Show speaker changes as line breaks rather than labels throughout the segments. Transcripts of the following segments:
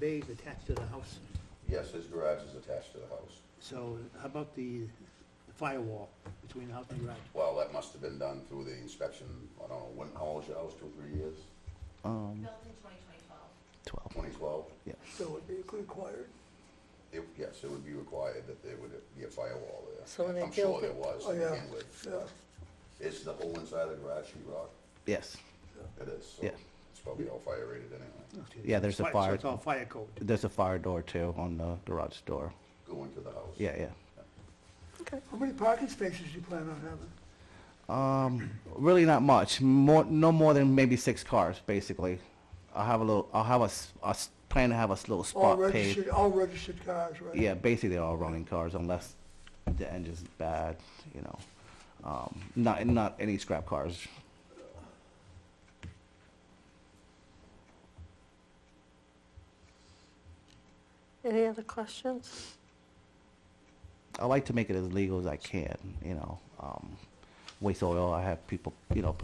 bays attached to the house?
Yes, his garage is attached to the house.
So how about the the firewall between the house and the garage?
Well, that must have been done through the inspection, I don't know, when, how old is your house, two, three years,
Um,
Built in 2012.
12.
twenty twelve?
Yeah.
So it'd be required.
It, yes, it would be required that there would be a firewall there.
So when they
I'm sure
built
there
it-
was
Oh,
to
yeah,
begin with.
yeah.
Is the whole inside of the garage sheet rock?
Yes.
It is, so
Yeah.
it's probably all fire rated anyway,
Yeah, there's a
So
fire-
it's all fire code.
There's a fire door too on the garage door.
going to the house.
Yeah, yeah.
How many parking spaces do you plan on having?
Um, really not much. More, no more than maybe six cars, basically. I'll have a little. I'll have a, s- a s- plan to have a s- little
All
spot paved.
registered, all registered cars, right?
Yeah, basically they're all running cars unless the engine's bad. You know, um, not not any scrap cars.
Any other questions?
I like to make it as legal as I can. You know, um, waste oil. I have people. You know,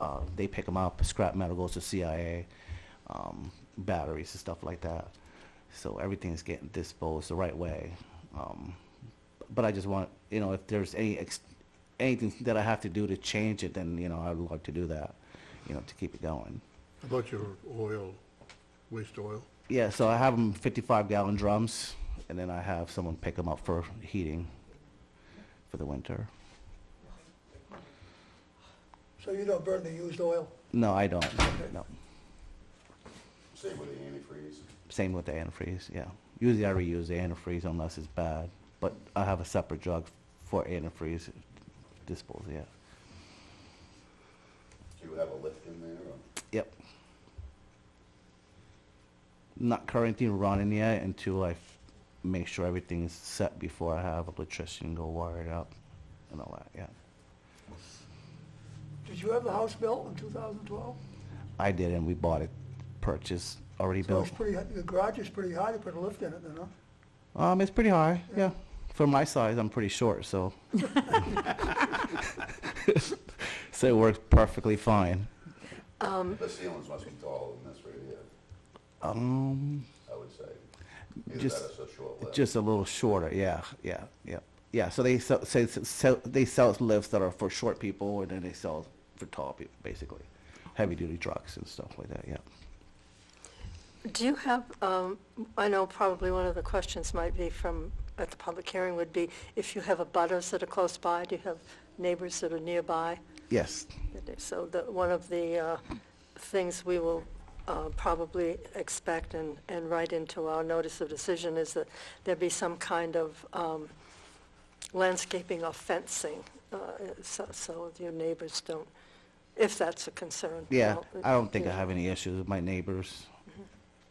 uh, they pick them up. Scrap metal goes to CIA, um, batteries and stuff like that. So everything's getting disposed the right way. Um, but I just want you know if there's any ex- anything that I have to do to change it, then you know I would like to do that. You know, to keep it going.
How About your oil, waste oil,
Yeah. So I have them 55 gallon drums, and then I have someone pick them up for heating for the winter.
So you don't burn the used oil?
No, I don't. No.
Same with the antifreeze.
Same with the antifreeze. Yeah. Usually I reuse the antifreeze unless it's bad, but I have a separate jug for antifreeze disposal. Yeah.
Do you have a lift in there or?
Yep. Not currently running yet until I f- make sure everything is set before I have electrician go wire it up and all that. Yeah.
Did you have the house built in 2012?
I did, and we bought it, purchased already
So
built.
it's pretty, the garage is pretty high, you put a lift in it, then, huh?
Um, it's pretty high. Yeah. For my size, I'm pretty short, so. so it works perfectly fine.
Um.
The ceilings must be taller than this right here,
Um,
I would say. Either
Just-
that or it's a short lift.
just a little shorter. Yeah, yeah, yeah, yeah. So they sell, so, so, so they sell lifts that are for short people, and then they sell for tall people, basically, heavy duty trucks and stuff like that. Yeah.
Do you have, um, I know probably one of the questions might be from, at the public hearing would be, if you have abutters that are close by, do you have neighbors that are nearby?
Yes.
So that, one of the uh, things we will uh, probably expect and, and write into our notice of decision is that there be some kind of um, landscaping or fencing, uh, so, so your neighbors don't, if that's a concern.
Yeah.
Well,
I don't think I
yeah.
have any issues with my neighbors,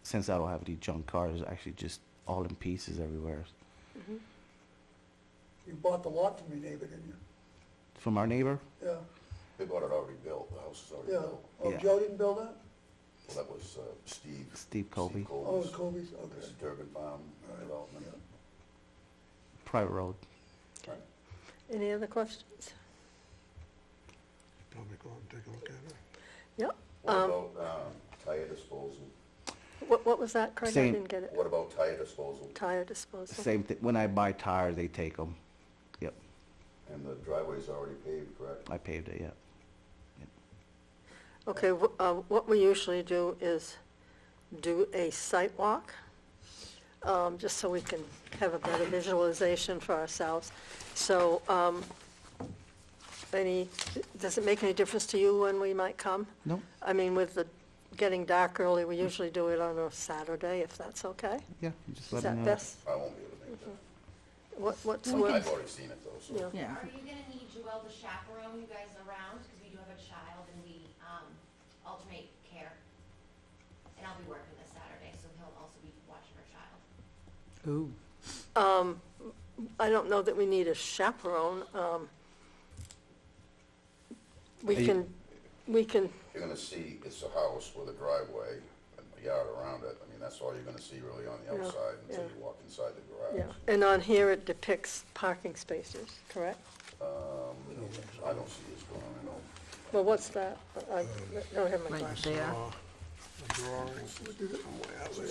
since I don't have any junk cars. Actually, just all in pieces everywhere.
You bought the lot from your neighbor, didn't
From our neighbor,
you? Yeah,
They bought it already built, the house is already
yeah.
built.
Oh,
Yeah.
Joe didn't build that?
Well, that was, uh, Steve.
Steve Colby,
Steve
Oh,
Colby's.
it's Kobe's, okay.
It's Durban Farm uh, Development.
private road.
Right.
Any other questions?
probably go out and take a look at it.
Yep.
What
Um,
about, um, tire disposal?
What, what was that, Craig? I
Same.
didn't get it.
What about tire disposal
Tire disposal?
Same thing. When I buy tires, they take them. Yep.
and the driveway's already paved, correct?
I paved it. Yep.
Okay, wh- uh, what we usually do is do a site walk, um, just so we can have a better visualization for ourselves. So, um, any, does it make any difference to you when we might come?
No.
I mean, with the getting dark early, we usually do it on a Saturday, if that's okay?
Yeah. Just
Is
let me
that
know.
best?
I won't be able to make that.
What, what's,
I've
what's,
already seen it though, so.
Mm-hmm. yeah.
Are you going to need Joel to chaperone you guys around? Because we do have a child and we um, alternate care. And I'll be working this Saturday, so he'll also be watching her child.
Ooh.
Um, I don't know that we need a chaperone. um, We
Are you-
can, we can,
You're gonna see, it's a house with a driveway and a yard around it. I mean, that's all you're gonna see really on the
Yeah,
outside until
yeah.
you walk inside the
yeah,
garage.
and on here it depicts parking spaces, correct?
Um, I don't see this going, I don't.
Well, what's that? I I don't have my glasses.
A drawing somewhere,